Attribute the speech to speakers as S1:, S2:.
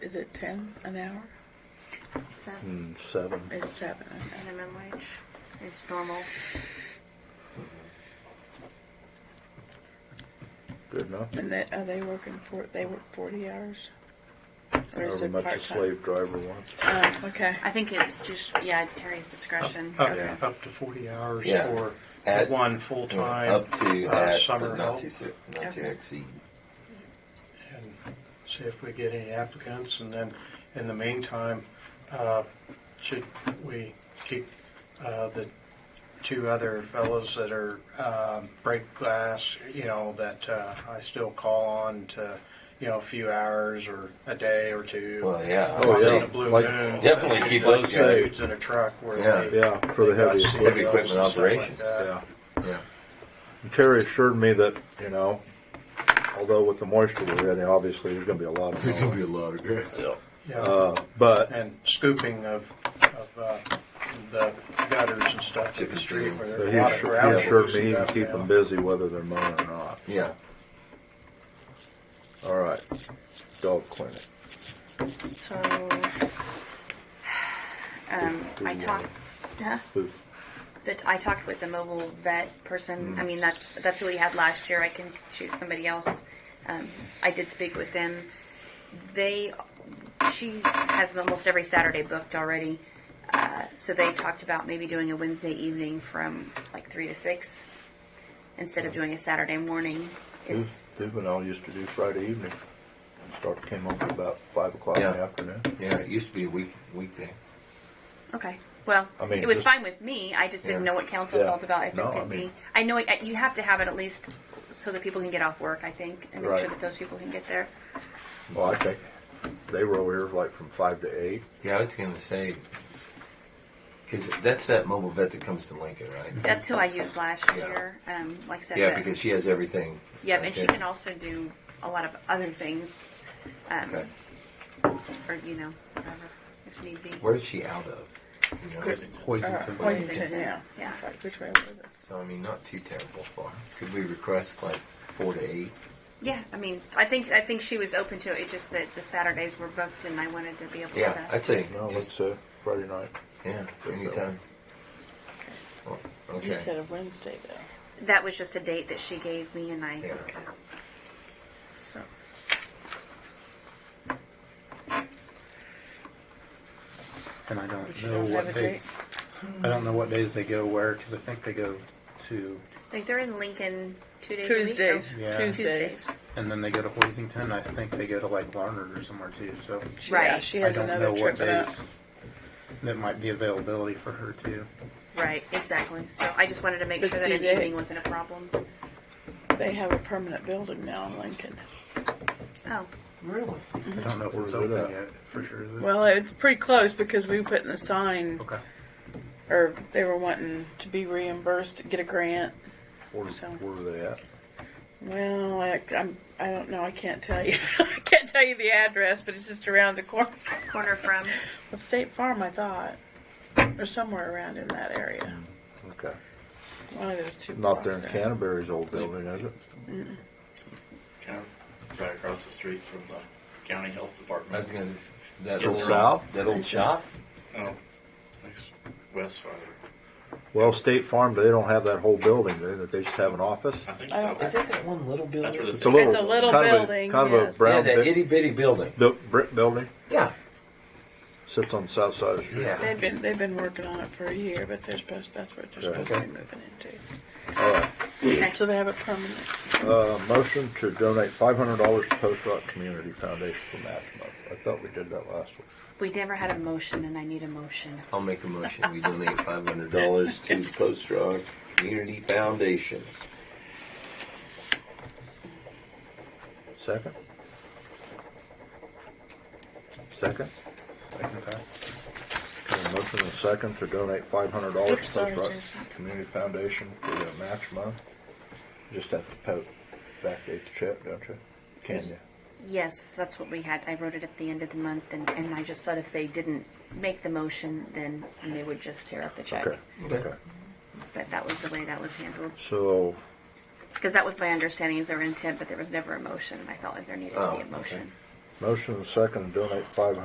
S1: is it ten an hour?
S2: So,
S3: and Hmm, seven.
S1: It's seven.
S2: minimum wage is normal.
S3: Good enough.
S1: And that, are they working for, they work forty hours? Or is
S3: However
S1: it
S3: much a
S1: part-time?
S3: slave driver wants.
S1: Oh, okay.
S2: I think it's just, yeah, Terry's discretion.
S4: Up,
S3: Yeah.
S4: up to 40 hours
S5: Yeah.
S4: for
S5: At-
S4: one full time
S5: up to
S4: uh,
S5: that,
S4: summer
S5: but not
S4: help.
S5: to, su- not to
S1: Okay.
S5: exceed.
S4: and see if we get any applicants, and then in the meantime, uh, should we keep uh, the two other fellows that are um, break glass, you know, that uh, I still call on to, you know, a few hours or a day or two.
S5: Well, yeah.
S3: Oh,
S4: Once in
S3: yeah.
S4: a blue
S3: Like-
S4: moon,
S5: Definitely keep those
S4: like
S3: guys.
S4: dudes in a truck where
S5: Yeah,
S4: they,
S3: yeah, for the
S4: they got
S3: heavy
S4: seatbelts
S3: equipment.
S5: Heavy equipment
S4: and stuff like
S5: operations.
S4: that.
S3: Yeah.
S5: Yeah.
S3: And Terry assured me that, you know, although with the moisture we're getting, obviously there's going to be a lot of snow.
S5: a lot of grass.
S4: Yeah.
S3: Uh, but
S4: and scooping of, of uh, the gutters and stuff to the street where
S3: but
S4: there's
S3: he
S4: a lot of
S3: assured,
S4: gravel.
S3: he assured me
S4: and
S3: you can
S4: stuff
S3: keep
S4: now.
S3: them busy whether they're mowing or not.
S5: Yeah.
S3: All right. Dog clinic.
S2: So, um, I talked, huh?
S3: Who-
S2: But I talked with the mobile vet person.
S3: Mm.
S2: I mean, that's that's who we had last year. I can choose somebody else. Um, I did speak with them. They, she has almost every Saturday booked already. Uh, so they talked about maybe doing a Wednesday evening from like three to six, instead of doing a Saturday morning.
S3: Ju-
S2: It's
S3: Juvenile used to do Friday evening. Start came over about five o'clock in the
S5: Yeah.
S3: afternoon.
S5: Yeah, it used to be a week weekday.
S2: Okay. Well,
S3: I mean,
S2: it was
S3: just-
S2: fine with me. I just didn't
S5: Yeah.
S2: know what council
S3: Yeah.
S2: felt about if
S3: No,
S2: it could
S3: I mean-
S2: be. I know it, you have to have it at least so that people can get off work. I think, and make
S3: Right.
S2: sure that those people can get there.
S3: Well, I think they were over here like from five to eight.
S5: Yeah, I was going to say, because that's that mobile vet that comes to Lincoln, right?
S2: That's who I used last
S5: Yeah.
S2: year. Um, like I said,
S5: yeah,
S2: but-
S5: because she has everything.
S2: yeah,
S5: right
S2: and she
S5: there.
S2: can um, also do a lot of other things, um,
S5: Okay.
S2: or you know, whatever if need be.
S5: Where is she out of? You know,
S1: Could-
S5: Hoisington,
S1: Uh,
S5: Lincoln.
S1: Hoisington, yeah.
S2: Yeah.
S1: It's like, which way was it?
S5: So I mean, not too terrible far. Could we request like four to eight?
S2: Yeah, I mean, I think I think she was open to it. It's just that the Saturdays were booked, and I wanted to be able
S5: Yeah,
S2: to.
S5: I'd say
S3: No, it's
S5: just
S3: uh, Friday night.
S5: yeah, anytime. Oh,
S1: You
S5: okay.
S1: said a Wednesday though.
S2: that was just a date that she gave me, and I.
S5: Yeah.
S1: So,
S6: And I
S1: but
S6: don't
S1: you
S6: know
S1: don't have
S6: what
S1: a date?
S6: days, I don't know what days they go where, because I think they go to,
S2: Like they're in Lincoln two days. A week,
S1: Tuesdays,
S2: though.
S6: Yeah.
S1: Tuesdays.
S2: Tuesdays.
S6: and then they go to Hoisington, I think they go to like Larned or somewhere too, so.
S1: She-
S2: Right.
S1: yeah, She
S6: I
S1: has
S6: don't know
S1: another
S6: what
S1: trip out.
S6: days that might be availability for her too.
S2: Right, exactly. So I just wanted to make
S1: But
S2: sure that
S1: see,
S2: an
S1: they-
S2: evening wasn't a problem.
S1: They have a permanent building now in Lincoln.
S6: Mm-hmm.
S2: Oh,
S5: Really?
S6: I don't know if
S3: Where's
S6: it's
S3: it at?
S6: open yet, for sure. is it?
S1: Well, it's pretty close because we put in the sign,
S6: Okay.
S1: or they were wanting to be reimbursed, get a grant.
S3: Where,
S1: So-
S3: where were they at?
S1: Well, I, I'm, I don't know. I can't tell you. I can't tell you the address, but it's just around the corner.
S2: corner from.
S1: Well, State Farm, I thought, or somewhere around in that area.
S3: Okay.
S1: One of those two.
S3: Not there in
S1: blocks
S3: Canterbury's old building, is it?
S7: kind of right across the street from the county health
S5: I
S7: department.
S5: was gonna that
S7: Go
S5: old
S3: south?
S5: that old shop.
S7: Oh, next west farther.
S3: Well, State Farm, they don't have that whole building, do they? They just have an office?
S7: I think
S1: I don't-
S7: so.
S5: Is that that one little building?
S7: That's where the-
S3: It's a little,
S1: It's a little
S3: kind
S1: building,
S3: Of a, kind
S1: yes.
S3: of a
S5: yeah,
S3: brown
S5: that
S3: brick-
S5: itty bitty building.
S3: built- brick building.
S5: Yeah.
S3: Sits on the south side of the street.
S5: Yeah.
S1: They've been they've been working on it for a year, but they're supposed that's what they're supposed to be moving into.
S3: All right.
S2: Okay.
S1: So they have it permanent.
S3: Uh, motion to donate five hundred dollars to Post Rock Community Foundation for Match Month. I thought we did that last week.
S2: We never had a motion, and I need a motion.
S5: I'll make a motion. We donate five hundred dollars to Post Rock Community Foundation.
S3: Second? Second?
S6: Second time.
S3: Got a motion and a second to donate five hundred dollars
S1: Oops,
S3: to
S1: sorry,
S3: Post Rock
S1: Jason.
S3: Community Foundation for the Match Month. Just have to po- backdate the check, don't you? Can you?
S2: Yes, that's what we had. I wrote it at the end of the month, and, and I just thought if they didn't make the motion, then they would just tear up the check.
S3: Okay, okay.
S2: But that was the way that was handled.
S3: So,
S2: Because that was my understanding is their intent, but there was never a motion, and I felt like there needed to
S5: Oh,
S2: be a
S5: okay.
S2: motion.
S3: Motion second to donate five